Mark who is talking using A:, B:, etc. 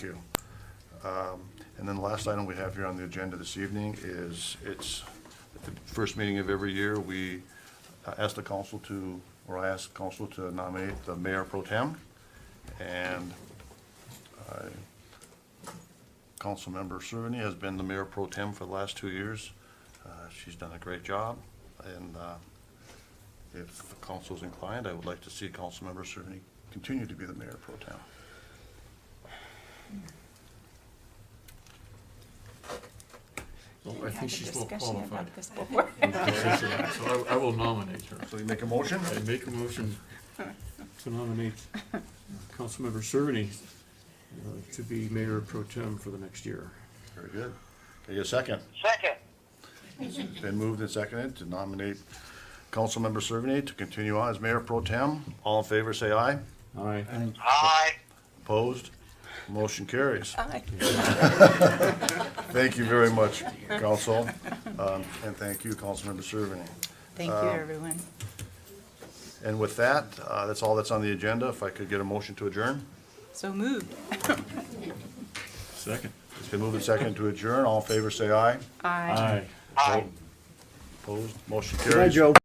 A: Thank you. Um, And then the last item we have here on the agenda this evening is, it's, at the first meeting of every year, we uh, ask the council to, or I ask council to nominate the mayor pro tem. And I- Councilmember Servany has been the mayor pro tem for the last two years. Uh, She's done a great job, and uh, if the council is inclined, I would like to see Councilmember Servany continue to be the mayor pro tem.
B: Well,
C: We
B: I
C: had a
B: think she's well
C: discussion about
B: qualified.
C: this before.
B: So I, I will nominate her.
A: So you make a motion?
B: I make a motion to nominate uh, Councilmember Cerveny uh, to be mayor pro tem for the next year.
A: Very good. Can I get a second?
D: Second,
A: It's Been moved and seconded to nominate Councilmember Servany to continue on as mayor pro tem. All in favor, say aye.
B: Aye.
D: aye.
A: Opposed? Motion carries.
C: Aye.
A: Thank you very much, council, um, and thank you, Councilmember Servany.
C: Thank you, everyone.
A: And with that, uh, that's all that's on the agenda. If I could get a motion to adjourn?
C: So moved.
B: Second.
A: It's been moved and seconded to adjourn. All in favor, say aye.
C: Aye.
B: Aye.
A: Aye. Opposed? Motion carries.
B: Joe.